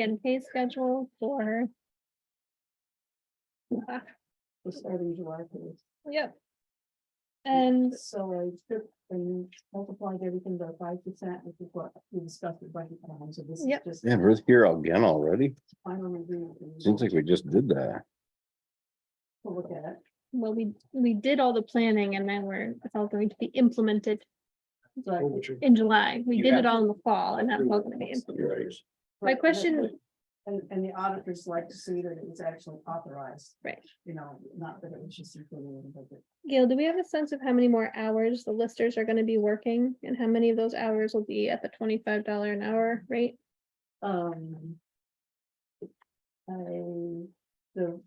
and pay schedule for. Ah, the starting July first. Yep. And So I took and multiplied everything by five percent, which is what we discussed with Budget Plan, so this is Yep. just Yeah, we're here again already. final agreement. and Seems like we just did that. we'll Look at it, well, we, we did all the planning and then we're, it's all going to be implemented but. in July. We You did have it all in the fall and that's all gonna be. implemented. My but- question- And, and the auditors like to see that it was actually authorized. Right. You know, not that it was just included in the budget. Gail, do we have a sense of how many more hours the listers are gonna be working and how many of those hours will be at the twenty-five dollar an hour rate? Um. I, the.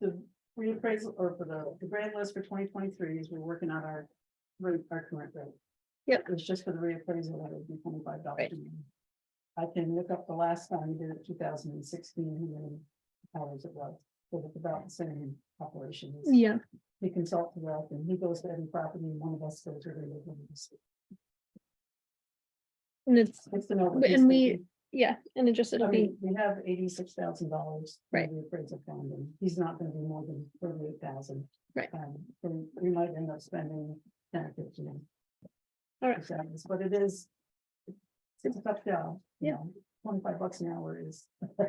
The reappraisal or for the, the grand list for twenty twenty-three is we're working on our rate, our current rate. Yep. It was just for the reappraisal, that would be twenty-five dollars. Right. I can look up the last time we did it, two thousand and sixteen, and hours it was, but it's about the same operations. Yeah, He consults with us and he goes to every property and one of us goes to every. one of us. and it's, It's the note. But- and we- yeah, and it just, I it'll be, mean, we have eighty-six thousand dollars. Right. The appraisal fund, and he's not gonna do more than thirty-eight thousand. Right. Um, and we might end up spending ten or fifteen. All right. That's what it is. It's a tough job. you Yeah. know, Twenty-five bucks an hour is.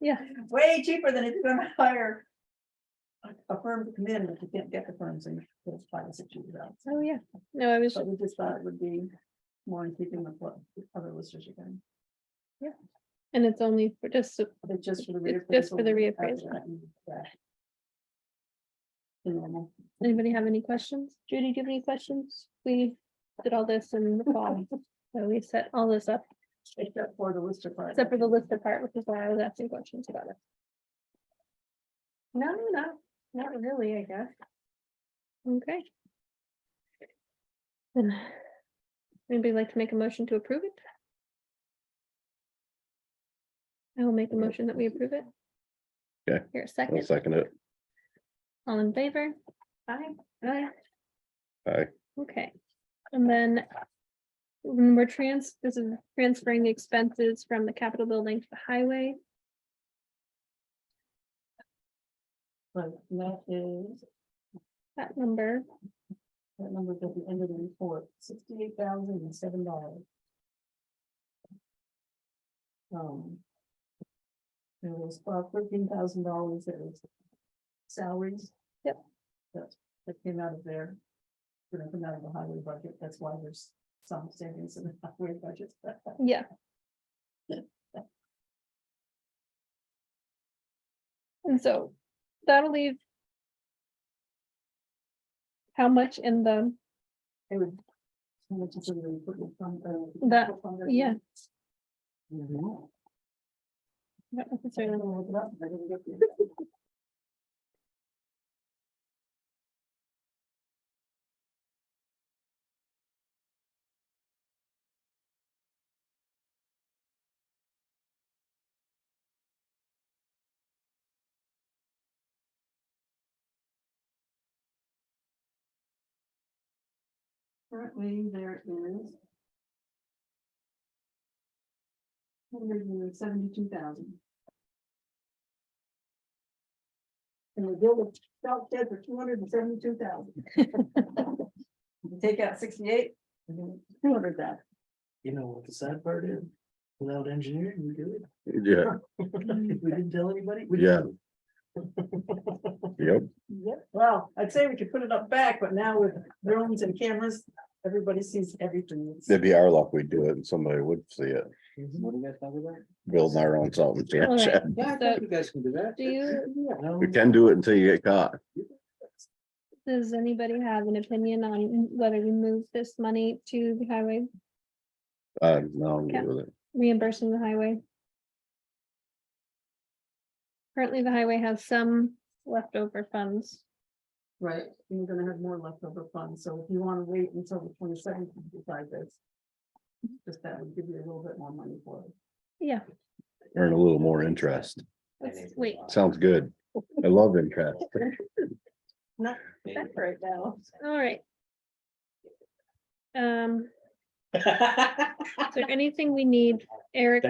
yeah, Way cheaper than if you're gonna hire. a- A firm to come in, but you can't get the firms in, it's five or six years out. oh, yeah. No, I was, But we just thought it would be more in keeping with what other listers are doing. and it's only for just, so- But It's just for the It's just for the reappraisal. anybody have any questions? Judy, do you have any questions? We did all this in the fall, so we set all this up, Except for the lister part. except for the lister part, which is why I was asking questions about it. No, no, not really, I guess. Okay. Then, anybody like to make a motion to approve it? I will make a motion that we approve it. Okay. Here, I'll second, second it. all in favor? Aye. Aye. Aye. Oh, Okay, and then when we're trans, this is transferring the expenses from the Capitol building to the highway. But that is, That number, that number's at the end of the report, sixty-eight thousand and seven dollars. Um. There was about thirteen thousand dollars that was salaries. Yep. That, that came out of there. Gonna come out of the highway budget, that's why there's some savings in the highway budget. yeah. And so that'll leave. How much in the, It would. how much is in the equipment fund, uh, That- capital fund, I yeah. think? Mhm. not I'm necessarily, gonna look it up, but I didn't get the- Currently, there is. Hundred and seventy-two thousand. And the bill was out dead for two hundred and seventy-two thousand. Take out sixty-eight, two hundred that. You know what the sad part is? Without engineering, we do it. Yeah, Mm-hmm. We didn't tell anybody. we Yeah. didn't. yep. Yep. Well, I'd say we could put it up back, but now with drones and cameras, everybody sees everything. It's- It'd be our luck we'd do it and somebody would see it, What do you guys think of that? building our own something. All yeah, right. Chad. Yeah, I So, think you guys can do that. do you- Yeah, no, We can do it until you get caught. does anybody have an opinion on whether we move this money to the highway, Uh, no, I'm good with it. reimbursing the highway? Currently, the highway has some leftover funds. Right, you're gonna have more leftover funds, so if you wanna wait until the twenty-seventh to decide this. Just that would give you a little bit more money for it. Yeah, Earn a little more interest. let's wait. Sounds good. I love interest. Not right now. All right. Um, Is there anything we need, Eric,